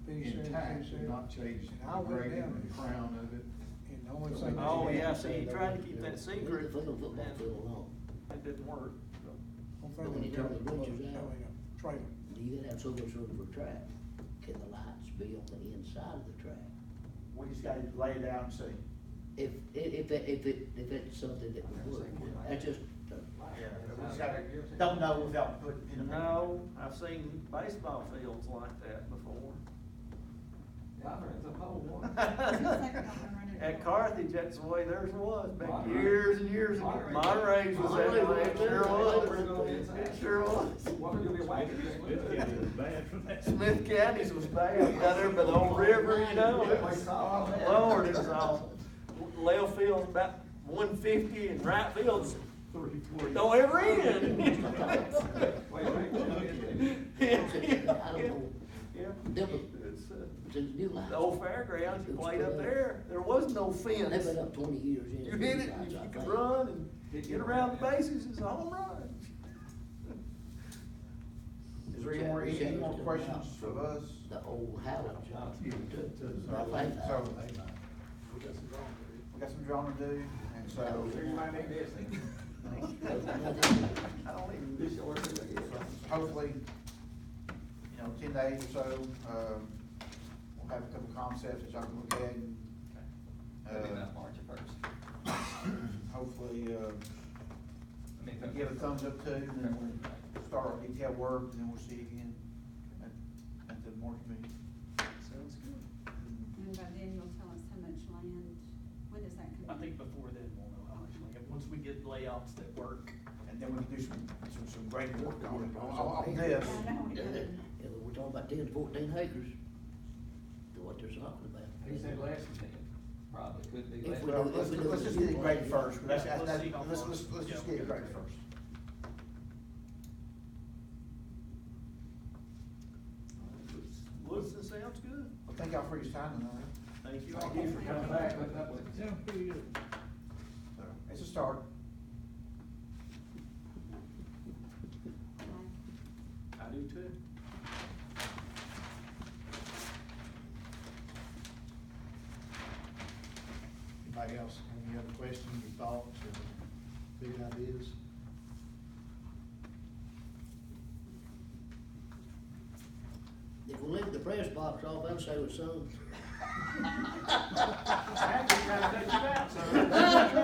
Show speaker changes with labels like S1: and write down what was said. S1: tax and not change
S2: And I
S1: the
S2: went
S1: grade
S2: down
S1: and the
S2: there.
S1: crown of it.
S2: And the only thing.
S3: Oh,
S2: they
S3: yeah,
S2: had-
S3: see, he tried to
S4: uh,
S3: keep that secret,
S4: From the football field on.
S3: It didn't work.
S2: only
S4: But when
S2: thing
S4: you
S2: they
S4: turn
S2: had
S4: the
S2: was
S4: bleachers out.
S2: having a Trailer.
S4: You gotta have so much room for track. Can the lights be on the inside of the track?
S5: We just gotta lay it out and see.
S4: If, i- if, it- if it, if it's something that would work, that's just, uh,
S5: Yeah, we just gotta, don't know without putting in a.
S3: No, I've seen baseball fields like that before.
S6: It's a whole one.
S3: At Carthage, that's the way theirs was, back
S6: Monterey.
S3: years and years ago.
S6: Monterey.
S3: Monterey's was that
S4: Monterey was
S3: way, it sure was.
S6: that way.
S3: It sure was.
S6: Well, you'll be awake.
S7: bad for that.
S3: Smith County's was bad, down there by the old river, you know, it was, Lord, it was all, left field's about one fifty and right field's
S1: Three, four.
S3: don't ever end. Yeah.
S4: There was-
S3: It's, uh,
S4: the new lights.
S3: The old fairgrounds, you played up there, there was no fence.
S4: They've been up twenty years. in
S3: You
S4: the
S3: hit it,
S4: lights,
S3: and you
S4: I
S3: could
S4: think.
S3: run and get around the bases, it's a home run.
S5: Is there any more, any more questions for us?
S4: The old Howard Johnson.
S1: Yeah,
S4: I think that-
S5: So, we got some drawing to do, and so.
S3: I don't even.
S5: Hopefully, you know, ten days or so, um, we'll have a couple concepts that y'all can look at and.
S6: Maybe not
S5: uh,
S6: March first.
S5: Hopefully, uh,
S6: I mean,
S5: we give a thumbs up to, and then we'll start our detailed work, and then we'll see you again at, at the March meeting.
S3: Sounds good.
S8: And by then you'll tell us how much land, when does that
S3: I
S8: come?
S3: think before then, we'll know, obviously, And once we get layouts that work.
S5: And then we can do some, some, some great work on it, on, on- on this.
S8: I know.
S4: Yeah, that- yeah, we're talking about ten, fourteen acres, to what they're talking about.
S6: He said last ten, probably could be
S4: If
S6: last.
S4: we
S5: Well, let's, let's just get it graded first, let's,
S3: Yeah, let's
S5: let's,
S3: see how
S5: let's,
S3: far.
S5: let's, let's just
S3: Yeah,
S5: get it
S3: we'll
S5: graded
S3: get
S5: first.
S3: Looks and sounds good.
S5: Well, thank y'all for your time tonight.
S3: Thank you.
S6: Thank you for coming back, but that was.
S7: Yeah, pretty good.
S5: So, It's a start.
S8: Bye.
S3: I do too.
S1: Anybody else, any other questions, or thoughts, or big ideas?
S4: If we leave the press box off, I'd say with some.
S3: I had to try to let you out, so.